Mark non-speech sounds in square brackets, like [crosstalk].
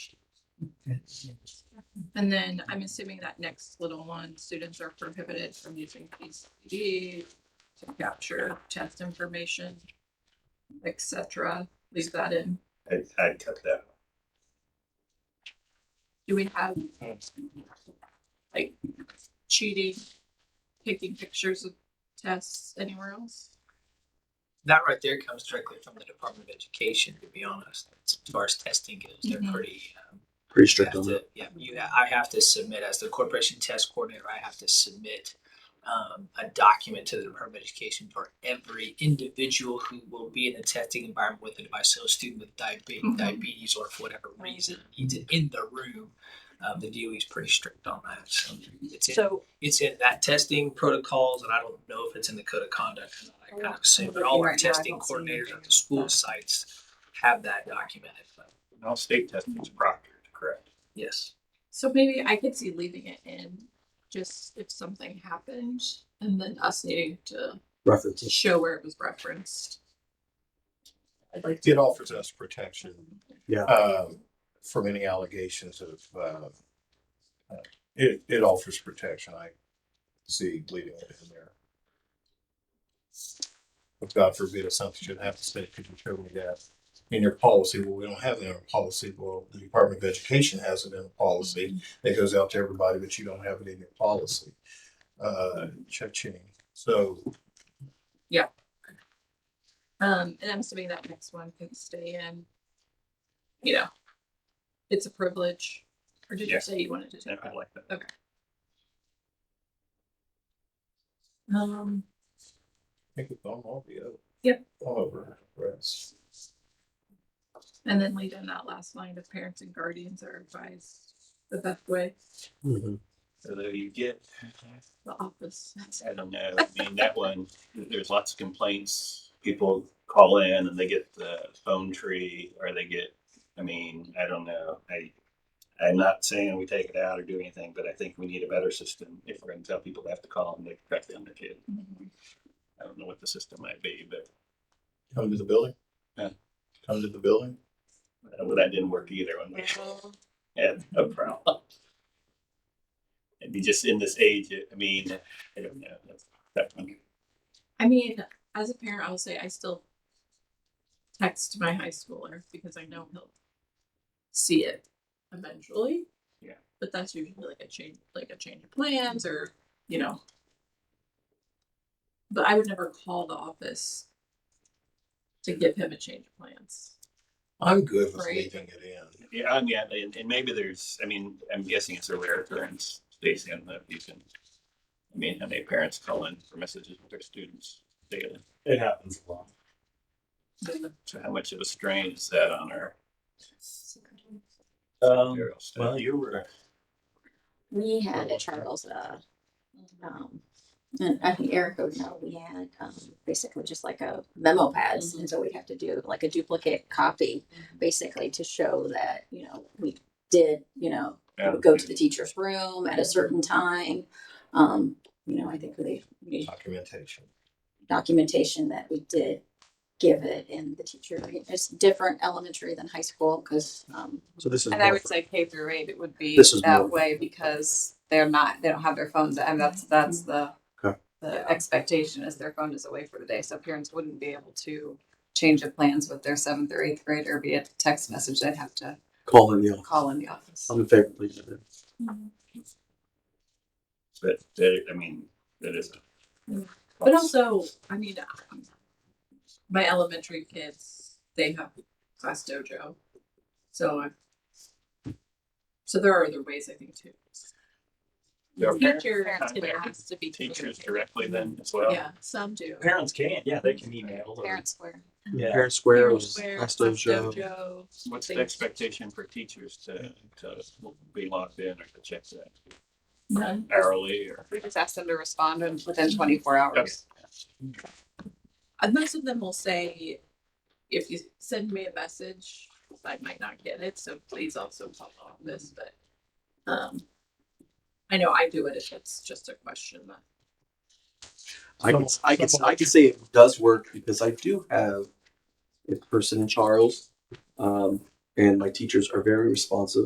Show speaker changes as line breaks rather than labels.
And then I'm assuming that next little one, students are prohibited from using PCD to capture test information, et cetera. Leave that in.
I, I cut that.
Do we have like cheating, taking pictures of tests anywhere else?
That right there comes directly from the Department of Education, to be honest. As far as testing goes, they're
Mhm.
pretty, um,
Pretty
you
strict
have
on that.
to, yeah, you, I have to submit as the corporation test coordinator, I have to submit um, a document to the Department of Education for every individual who will be in the testing environment with a device. So a student with diabetes,
Mm-hmm.
Mhm.
diabetes or for whatever reason needs it in the room. Um, the DOE is pretty strict on that. So it's in,
So
it's in that testing protocols, and I don't know if it's in the code of conduct. or not. I kind of assume, but
Oh, Right
all
now, I
our testing
don't see
coordinators
anything
at the
about
school
that.
sites have that documented. But
All state testing is proctored, correct?
yes.
So maybe I could see leaving it in, just if something happened, and then us needing to
References.
show where it was referenced. I'd like
It offers us protection
Yeah.
um, from any allegations of, uh, uh, it, it offers protection. I see leaving it in there. If God forbid if something should happen, say, could you show me that in your policy? Well, we don't have that in our policy. Well, the Department of Education has it in a policy that goes out to everybody, but you don't have it in your policy. Uh, cha-ching. So
Um, and I'm assuming that next one can stay in. You know, it's a privilege. Or did
Yeah.
you say you wanted to
Yeah,
take
I
that?
like that.
Um,
I think it's on all the other.
Yep.
All over, rest.
and then leave in that last line of parents and guardians are advised the best way,
Mhm.
So there you get,
the office.
I don't know, I mean, that one, there's lots of complaints. People call in and they get the phone tree or they get, I mean, I don't know. I, I'm not saying we take it out or do anything, but I think we need a better system if we're gonna tell people they have to call and they track down their kid. I don't know what the system might be, but
Come to the building?
Yeah.
Come to the building?
uh, well, that didn't work either when we [laughs] had a problem. It'd be just in this age, I mean, I don't know. That's, that one.
I mean, as a parent, I'll say I still text my high schooler because I know he'll see it eventually.
Yeah.
But that's usually like a change, like a change of plans or, you know. But I would never call the office to give him a change of plans.
I'm good with
Right.
leaving it in.
Yeah, um, yeah, and, and maybe there's, I mean, I'm guessing it's a rare occurrence, Stacy, I don't know if you can. I mean, how many parents call in for messages with their students daily?
It happens a lot.
So how much of a strain is that on our
Um,
material stuff?
well, you were
We had at Charles, uh, um, and I think Eric would know, we had, um, basically just like a memo pads. And so we'd have to do like a duplicate copy, basically to show that, you know, we did, you know, we would go to the teacher's room at a certain time. Um, you know, I think they, we
Documentation.
documentation that we did give it and the teacher, it's different elementary than high school because, um,
So this is.
And I
more
would
for-
say K through eight, it would be
This is more-
that way because they're not, they don't have their phones. I mean, that's, that's the,
Okay.
the expectation is their phone is away for the day. So parents wouldn't be able to change of plans with their seventh or eighth grader via text message. They'd have to
Call in the office.
call in the office.
I'm in favor, please.
But, that- I mean, that is. a-
Mm. But also, I mean, um, my elementary kids, they have class dojo. So I, so there are other ways I think too.
There are parents-
Teacher
parents-
it has to be
Teachers
communicated.
directly then as well.
Yeah, some do.
parents can, yeah, they can email. or-
Parents were.
Yeah.
Parent Square
Parents
was
wear
last
class
dojo.
dojo.
What's the
Things.
expectation for teachers to, to be logged in or to check that
None.
hourly or?
We just asked them to respond in- within twenty-four hours.
And Uh, most of them will say, if you send me a message, I might not get it, so please also call the office, but, um, I know I do it if it's just a question that
I can,
Someone-
I can,
someone-
I can say it does work because I do have a person in Charles. Um, and my teachers are very responsive.